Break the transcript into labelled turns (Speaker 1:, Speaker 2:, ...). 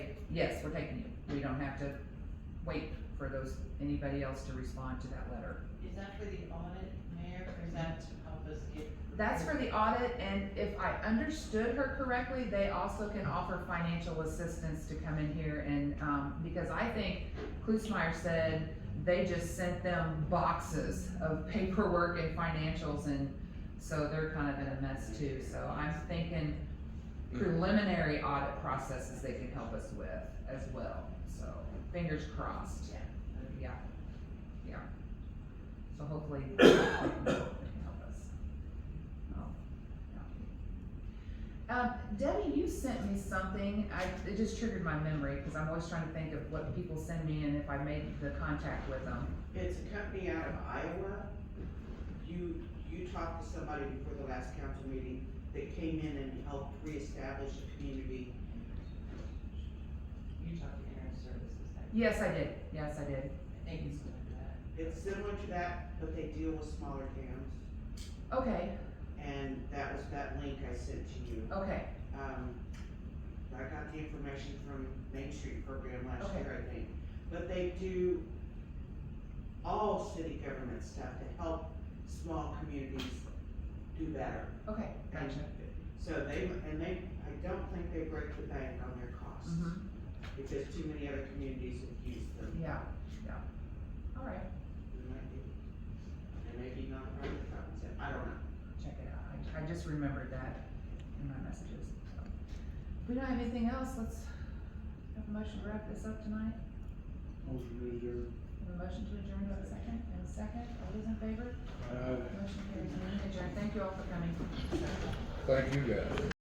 Speaker 1: yes, we're taking you. We don't have to wait for those, anybody else to respond to that letter.
Speaker 2: Is that for the audit, Mayor, or is that to help us get?
Speaker 1: That's for the audit, and if I understood her correctly, they also can offer financial assistance to come in here and, um, because I think Klusmeyer said they just sent them boxes of paperwork and financials, and so they're kind of in a mess too, so I'm thinking preliminary audit processes they can help us with as well, so fingers crossed.
Speaker 2: Yeah.
Speaker 1: Yeah, yeah. So hopefully they can help us. Oh, yeah. Um, Debbie, you sent me something, I, it just triggered my memory, cause I'm always trying to think of what people send me and if I made the contact with them.
Speaker 3: It's a company out of Iowa. You, you talked to somebody before the last council meeting that came in and helped reestablish a community.
Speaker 2: You talked to Internet Services, I
Speaker 1: Yes, I did, yes, I did.
Speaker 2: think it's like that.
Speaker 3: It's similar to that, but they deal with smaller towns.
Speaker 1: Okay,
Speaker 3: And that was that link I sent to you.
Speaker 1: okay,
Speaker 3: Um, I got the information from Main Street program last
Speaker 1: Okay.
Speaker 3: year, I think. But they do all city government stuff to help small communities do better.
Speaker 1: okay,
Speaker 3: And
Speaker 1: gotcha.
Speaker 3: So they, and they, I don't think they break the bank on their costs,
Speaker 1: hmm
Speaker 3: because too many other communities have used them.
Speaker 1: yeah, yeah. All right,
Speaker 3: They might be, they may be not running the concept, I don't know.
Speaker 1: check it out, I, I just remembered that in my messages. so. If we don't have anything else, let's have a motion to wrap this up tonight.
Speaker 4: Motion to adjourn.
Speaker 1: Have a motion to adjourn, do I have a second, and a second, all those in favor?
Speaker 4: Aye.
Speaker 1: Motion carries, meeting adjourned, thank you all for coming.
Speaker 5: Thank you guys.